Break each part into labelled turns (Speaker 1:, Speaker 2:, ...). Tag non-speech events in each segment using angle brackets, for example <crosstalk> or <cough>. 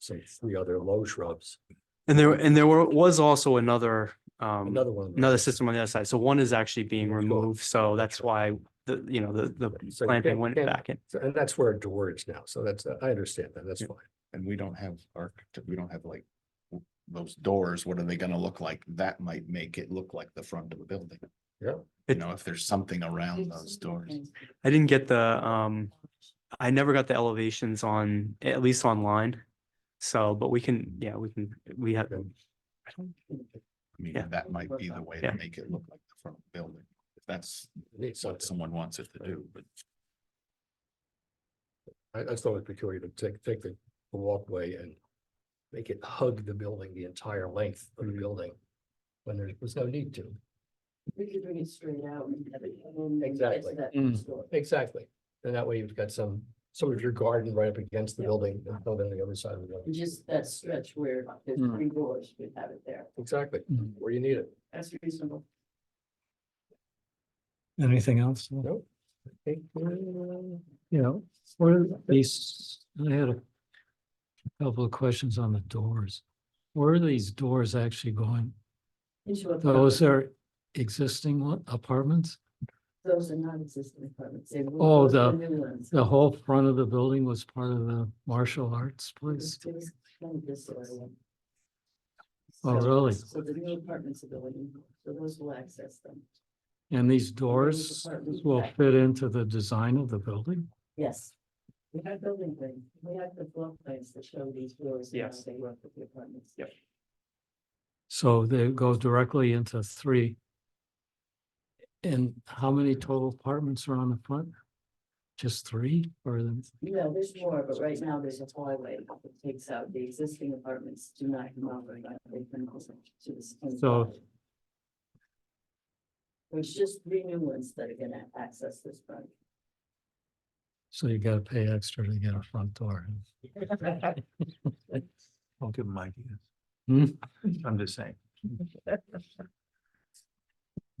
Speaker 1: say three other low shrubs,
Speaker 2: And there, and there were, was also another, um,
Speaker 1: another one. of those.
Speaker 2: another system on the other side. So one is actually being
Speaker 1: Sure.
Speaker 2: removed, so that's why the, you know, the, the
Speaker 1: So you
Speaker 2: planting
Speaker 1: can't-
Speaker 2: went
Speaker 1: can't-
Speaker 2: back in.
Speaker 1: So- And that's where it diverged now. So that's, I understand that. That's
Speaker 2: Yeah.
Speaker 1: fine.
Speaker 3: and we don't have architect, we don't have like. w- Those doors, what are they gonna look like? That might make it look like the front of a building.
Speaker 1: Yeah.
Speaker 3: You
Speaker 2: It-
Speaker 3: know, if there's something around those doors.
Speaker 2: I didn't get the, um, I never got the elevations on, at least online. So, but we can, yeah, we can, we have,
Speaker 1: Okay.
Speaker 3: I don't. I mean,
Speaker 2: Yeah.
Speaker 3: that might be the way
Speaker 2: Yeah.
Speaker 3: to make it look like the front of a building. If that's
Speaker 1: It needs something.
Speaker 3: what someone wants it to do, but
Speaker 1: I, I thought it'd be peculiar to take, take the the walkway and make it hug the building, the entire length of
Speaker 2: Mm-hmm.
Speaker 1: the building, when there was no need to.
Speaker 4: We could bring it straight out and have it. and then get
Speaker 1: Exactly.
Speaker 4: to that
Speaker 3: Mm.
Speaker 4: store.
Speaker 1: Exactly. And that way you've got some, some of your garden right up against the
Speaker 4: Yeah.
Speaker 1: building and building the other side of the
Speaker 4: And
Speaker 1: building.
Speaker 4: Just that stretch where there's
Speaker 3: Mm.
Speaker 4: three doors, we'd have it there.
Speaker 1: Exactly,
Speaker 2: Mm-hmm.
Speaker 5: Mm.
Speaker 1: where you need it.
Speaker 4: That's reasonable.
Speaker 5: Anything else? No.
Speaker 1: Nope. Okay, uh,
Speaker 5: You know, where these, I had a couple of questions on the doors. Where are these doors actually going?
Speaker 4: Into a-
Speaker 5: Those are existing one- apartments?
Speaker 4: Those are non-existent apartments. They were-
Speaker 5: Oh,
Speaker 4: those are
Speaker 5: the-
Speaker 4: New ones.
Speaker 5: The whole front of the building was part of the martial arts
Speaker 4: It was-
Speaker 5: place?
Speaker 4: it was kind of this area.
Speaker 5: Oh,
Speaker 4: So-
Speaker 5: really?
Speaker 4: So the new apartments are going, in, so those will access them.
Speaker 5: And these doors
Speaker 4: apartment
Speaker 5: will
Speaker 4: back.
Speaker 5: fit into the design of the building?
Speaker 4: Yes. We have building plans. We have the floor plans that show these doors. and how
Speaker 2: Yes.
Speaker 4: They work with the apartments.
Speaker 2: Yep.
Speaker 5: So they go directly into three. And how many total apartments are on the front? Just three or the-
Speaker 4: No, there's more, but right now there's a hallway that takes out the existing apartments do not come over. that they can go to this.
Speaker 5: So-
Speaker 4: There's just three new ones that are gonna access this front.
Speaker 5: so you gotta pay extra to get a front door.
Speaker 6: Don't give them ideas.
Speaker 5: Hmm?
Speaker 6: I'm just saying.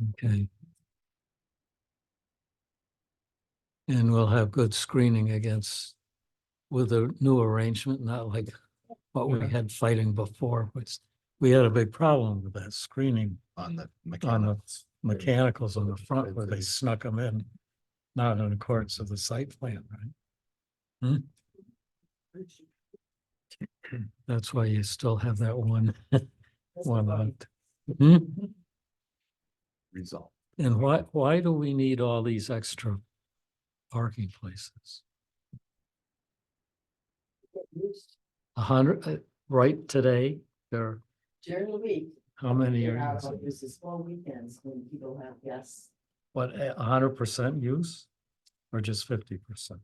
Speaker 5: Okay. And we'll have good screening against, with the new arrangement, not like what we
Speaker 6: Okay.
Speaker 5: had fighting before, which we had a big problem with that screening
Speaker 3: on the
Speaker 5: on the
Speaker 3: mechanicals.
Speaker 5: mechanicals on the
Speaker 1: Yeah,
Speaker 5: front where they
Speaker 1: it's-
Speaker 5: snuck them in. Not in accordance with the site plan, right? That's why you still have that one,
Speaker 4: That's
Speaker 5: one
Speaker 4: the
Speaker 5: on.
Speaker 4: problem.
Speaker 5: Hmm?
Speaker 3: Result.
Speaker 5: And why, why do we need all these extra parking places?
Speaker 4: Get used
Speaker 5: A hundred, uh, right today, there, are
Speaker 4: During the week.
Speaker 5: how many
Speaker 4: they're
Speaker 5: are,
Speaker 4: out
Speaker 5: using?
Speaker 4: on- This is all weekends when people have guests.
Speaker 5: what, a a hundred percent use? Or just fifty percent?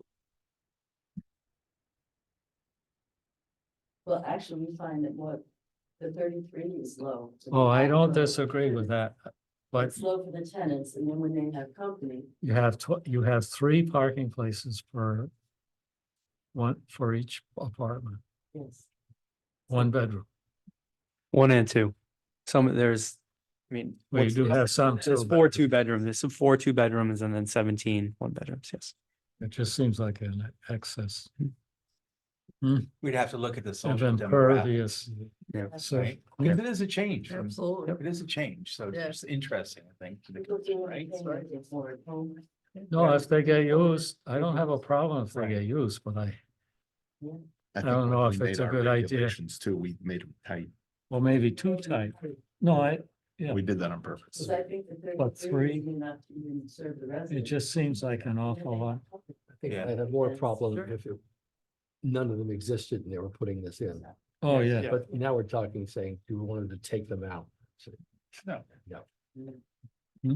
Speaker 4: Well, actually, we find that what the thirty-three is low. for the
Speaker 5: Oh, I
Speaker 4: background.
Speaker 5: don't disagree with that, but
Speaker 4: It's low for the tenants and then when they have company,
Speaker 5: you have tw- you have three parking places for one, for each apartment,
Speaker 4: yes.
Speaker 5: one bedroom.
Speaker 2: One and two. Some, there's, I mean.
Speaker 5: Well, you
Speaker 2: what's-
Speaker 5: do have some
Speaker 2: There's
Speaker 5: too,
Speaker 2: four
Speaker 5: but
Speaker 2: two bedrooms, there's some four two bedrooms and then 17 one bedrooms, yes.
Speaker 5: it just seems like an excess
Speaker 6: We'd have to look at the
Speaker 5: of
Speaker 6: social demographic.
Speaker 5: impervious.
Speaker 2: Yeah.
Speaker 5: So,
Speaker 6: Right. Because it is a change. from-
Speaker 4: Absolutely.
Speaker 6: It is a change. So
Speaker 4: Yeah.
Speaker 6: it's just interesting, I think. to the-
Speaker 4: People do what they
Speaker 6: right?
Speaker 4: can to get more at home.
Speaker 5: no, if they get used, I don't have a problem if they
Speaker 6: Right.
Speaker 5: get used, but I,
Speaker 3: I
Speaker 5: don't
Speaker 3: think when
Speaker 5: know
Speaker 3: we
Speaker 5: if
Speaker 3: made
Speaker 5: it's a
Speaker 3: our
Speaker 5: good idea.
Speaker 3: regulations Too, we made them tight.
Speaker 5: well, maybe too tight. No, I, Yeah.
Speaker 3: We did that on purpose.
Speaker 4: Cause I think the
Speaker 5: But
Speaker 4: thirty-three is
Speaker 5: three-
Speaker 4: enough to even serve the
Speaker 5: it
Speaker 4: residents.
Speaker 5: just seems like an awful lot.
Speaker 1: I think
Speaker 6: Yeah.
Speaker 1: I had more
Speaker 4: Yes,
Speaker 1: problem
Speaker 4: sure.
Speaker 1: if it- none of them existed and they were putting this in.
Speaker 5: Oh,
Speaker 6: Yes,
Speaker 5: yeah,
Speaker 1: But now we're talking, saying, do we want them to take them out? So,
Speaker 6: No.
Speaker 4: Yeah.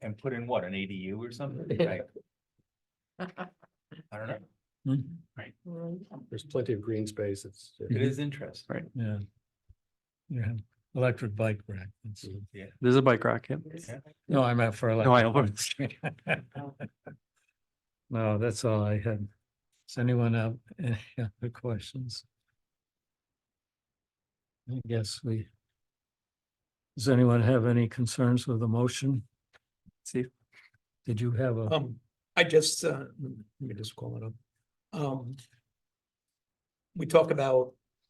Speaker 6: And put in what, an ADU or something?
Speaker 1: Yeah.
Speaker 6: Right. I don't know.
Speaker 5: Mhm.
Speaker 1: There's plenty of green space. It's,
Speaker 6: It is interesting.
Speaker 5: yeah. Yeah, electric bike rack. that's-
Speaker 2: There's a bike rack, yeah.
Speaker 5: No, I meant for.
Speaker 2: No, I
Speaker 5: electric
Speaker 2: over-
Speaker 5: bikes. <laughs> No, that's all I had. Does anyone have <laughs> any other questions? I guess we. Does anyone have any concerns with the motion?
Speaker 2: See,
Speaker 5: Did you have a,
Speaker 7: Um, I just, uh, let me just call it up. Um. we talk about